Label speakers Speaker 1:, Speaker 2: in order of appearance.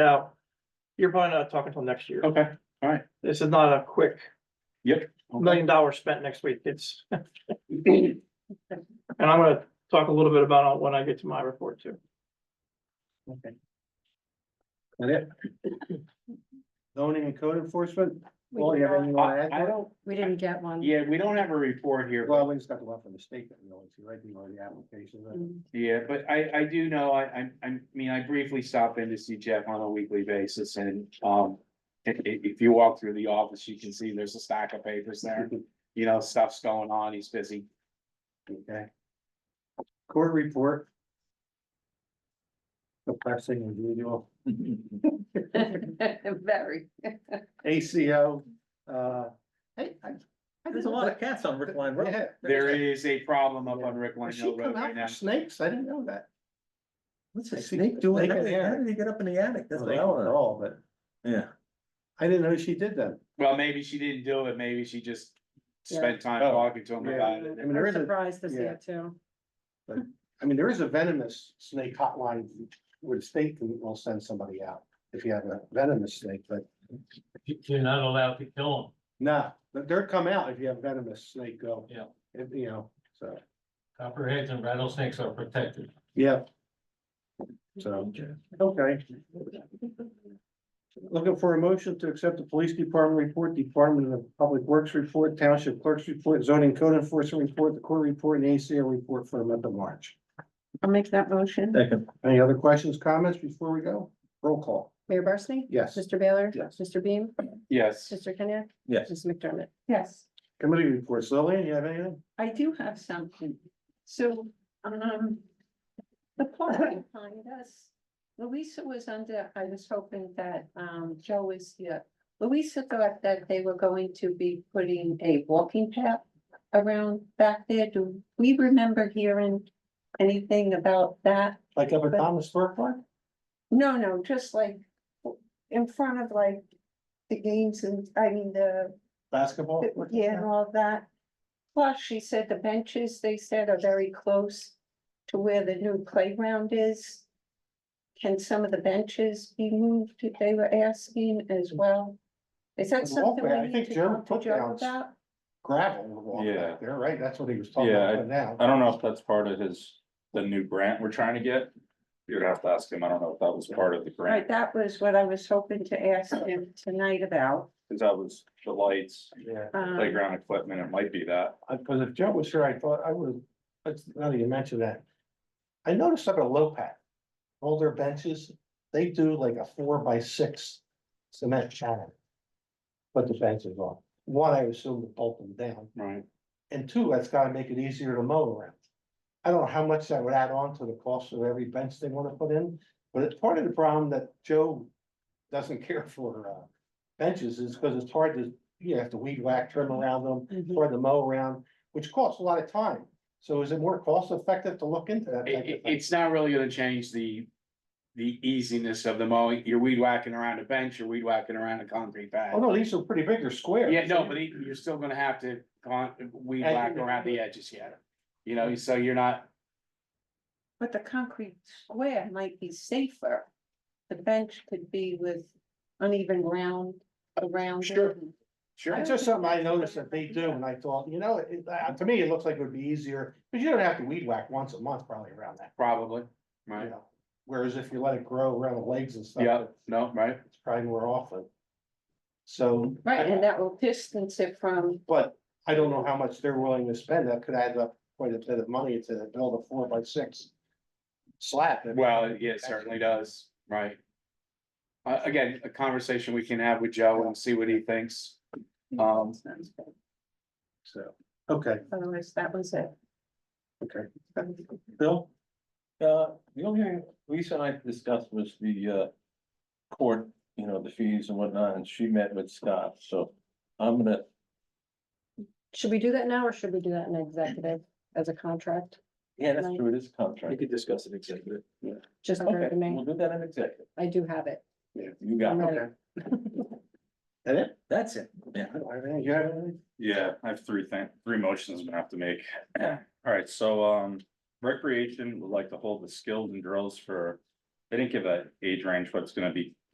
Speaker 1: Now, you're probably not talking till next year.
Speaker 2: Okay,
Speaker 1: This is not a quick million dollars spent next week. It's, and I'm gonna talk a little bit about it when I get to my report too.
Speaker 3: That it? Zoning and code enforcement,
Speaker 4: We
Speaker 3: well, you have
Speaker 4: did
Speaker 3: anything
Speaker 4: not-
Speaker 3: you wanna
Speaker 2: I
Speaker 3: add?
Speaker 2: I
Speaker 3: to it?
Speaker 2: don't,
Speaker 4: we didn't get one.
Speaker 2: yeah, we don't have a report here, but
Speaker 3: Well, we just got the one from the state that we always see, right, you know, the application, uh,
Speaker 4: Mm.
Speaker 2: yeah, but I, I do know, I, I, I mean, I briefly stop in to see Jeff on a weekly basis and, um. i- i- if you walk through the office, you can see there's a stack of papers there, you know, stuff's going on, he's busy.
Speaker 3: okay. Court report. Depressing as usual,
Speaker 4: Very.
Speaker 3: ACO, uh, hey, I. I
Speaker 5: There's a
Speaker 3: didn't
Speaker 5: lot
Speaker 3: know
Speaker 5: of cats on Rick Line
Speaker 3: that-
Speaker 5: Road.
Speaker 3: Yeah,
Speaker 2: There is a problem up on Rick
Speaker 3: Does
Speaker 2: Lino
Speaker 3: she
Speaker 2: Road
Speaker 3: come
Speaker 2: right
Speaker 3: out
Speaker 2: now.
Speaker 3: for snakes, I didn't know that.
Speaker 5: What's
Speaker 3: I
Speaker 5: a
Speaker 3: see.
Speaker 5: snake doing?
Speaker 3: Snake
Speaker 5: How
Speaker 3: in the
Speaker 5: did how
Speaker 3: attic.
Speaker 5: did he get up in the attic? That's
Speaker 3: Well,
Speaker 5: what
Speaker 3: they
Speaker 5: I
Speaker 3: don't
Speaker 5: wanna know.
Speaker 3: know, but
Speaker 5: Yeah.
Speaker 3: I didn't know she did that.
Speaker 2: Well, maybe she didn't do it, maybe she just spent time
Speaker 3: Oh,
Speaker 2: talking to him
Speaker 3: yeah.
Speaker 2: about
Speaker 3: I
Speaker 2: it.
Speaker 3: mean, there
Speaker 4: I'm
Speaker 3: is a,
Speaker 4: surprised to see
Speaker 3: yeah.
Speaker 4: it too.
Speaker 3: I mean, there is a venomous snake hotline where the state can- will send somebody out if you have a venomous snake, but
Speaker 6: You're not allowed to kill
Speaker 3: no, but they're come out if you have venomous snake go.
Speaker 6: Yeah.
Speaker 3: If, you know, so,
Speaker 6: them. Copperheads and rattlesnakes are protected.
Speaker 3: yeah. So, okay. Looking for a motion to accept the police department report, Department of Public Works report, Township Clerk's report, zoning code enforcement report, the court report, and ACO report for the month of March.
Speaker 4: I'll make that motion.
Speaker 5: Second,
Speaker 3: Any other questions, comments before we go? Roll call,
Speaker 4: Mayor Barsney?
Speaker 3: yes.
Speaker 4: Mr. Baylor?
Speaker 3: Yes.
Speaker 4: Mr. Beam?
Speaker 2: Yes,
Speaker 4: Mr. Kenya?
Speaker 5: yes.
Speaker 4: Mrs. McDermott? Yes.
Speaker 3: Committee reports, Lillian, you have anything?
Speaker 7: I do have something. So, um, the plot behind us, Louisa was under, I was hoping that, um, Joe was here. Louisa thought that they were going to be putting a walking path around back there. Do we remember hearing anything about that?
Speaker 3: Like up at Thomas Burke Park?
Speaker 7: No, no, just like in front of like the games and, I mean, the
Speaker 3: Basketball?
Speaker 7: yeah, and all of that. Plus, she said the benches, they said, are very close to where the new playground is. Can some of the benches be moved, they were asking as well? Is that
Speaker 3: The
Speaker 7: something
Speaker 3: walkway, I
Speaker 7: we need
Speaker 3: think
Speaker 7: to
Speaker 3: Joe
Speaker 7: talk to
Speaker 3: put
Speaker 7: Joe
Speaker 3: down-
Speaker 7: about?
Speaker 3: Gravel walk
Speaker 8: Yeah.
Speaker 3: back there, right? That's what he was talking
Speaker 8: Yeah,
Speaker 3: about but now.
Speaker 8: I don't know if that's part of his, the new grant we're trying to get. You'd have to ask him. I don't know if that was part of the
Speaker 7: Right,
Speaker 8: grant,
Speaker 7: that was what I was hoping to ask him tonight about.
Speaker 8: because that was the lights,
Speaker 3: Yeah,
Speaker 7: um,
Speaker 8: playground equipment, it might be that.
Speaker 3: because if Joe was here, I thought I would, that's, now that you mentioned that. I noticed up at Lopat, all their benches, they do like a four by six cement channel. Put the fences on. One, I assume to bolt them down,
Speaker 2: right,
Speaker 3: and two, that's gotta make it easier to mow around. I don't know how much that would add on to the cost of every bench they wanna put in, but it's part of the problem that Joe doesn't care for, uh, benches is because it's hard to, you have to weed whack, trim around them,
Speaker 7: mhm.
Speaker 3: or the mow around, which costs a lot of time. So is it more cost effective to look into that?
Speaker 2: It-
Speaker 3: type
Speaker 2: it-
Speaker 3: of thing?
Speaker 2: it's not really gonna change the. The easiness of the mowing, you're weed whacking around a bench, you're weed whacking around a concrete pad.
Speaker 3: Oh, no, these are pretty big, they're square.
Speaker 2: Yeah, no, but it- you're still gonna have to con, weed
Speaker 3: Edge-
Speaker 2: whack around the edges yet. You know, so you're not,
Speaker 7: But the concrete square might be safer. The bench could be with uneven ground around. it.
Speaker 3: Sure.
Speaker 7: I
Speaker 2: sure,
Speaker 3: It's just
Speaker 7: don't
Speaker 3: something
Speaker 7: think
Speaker 3: I
Speaker 7: that's
Speaker 3: noticed
Speaker 7: gonna
Speaker 3: that they
Speaker 7: be
Speaker 3: do,
Speaker 7: done.
Speaker 3: and I thought, you know, it, uh, to me, it looks like it would be easier, because you don't have to weed whack once a month probably around that.
Speaker 2: probably,
Speaker 3: you
Speaker 2: right?
Speaker 3: know. Whereas if you let it grow around the legs and stuff.
Speaker 2: Yeah, no, right?
Speaker 3: It's probably more often. So.
Speaker 7: Right, and that will distance it from,
Speaker 3: But I don't know how much they're willing to spend. That could add up quite a bit of money to build a four by six. Slab.
Speaker 2: Well, yeah, it certainly does, right? Uh, again, a conversation we can have with Joe and see what he thinks. Um,
Speaker 3: So, okay,
Speaker 7: otherwise that was it.
Speaker 3: okay.
Speaker 5: Bill? Uh, the only reason I discussed was the uh court, you know, the fees and whatnot, and she met with Scott, so I'm gonna,
Speaker 4: Should we do that now or should we do that in executive as a contract?
Speaker 5: yeah, that's true, it is contract.
Speaker 6: could discuss an executive.
Speaker 4: Just for
Speaker 5: Okay,
Speaker 4: me,
Speaker 5: we'll do that in executive.
Speaker 4: I do have it.
Speaker 5: You got
Speaker 4: I'm
Speaker 5: it.
Speaker 4: ready.
Speaker 3: And it,
Speaker 5: That's it. Yeah.
Speaker 3: I don't have anything. you have anything?
Speaker 8: Yeah, I have three things, three motions I'm gonna have to make. All right, so um recreation would like to hold the skills and drills for. They didn't give a age range, but it's gonna be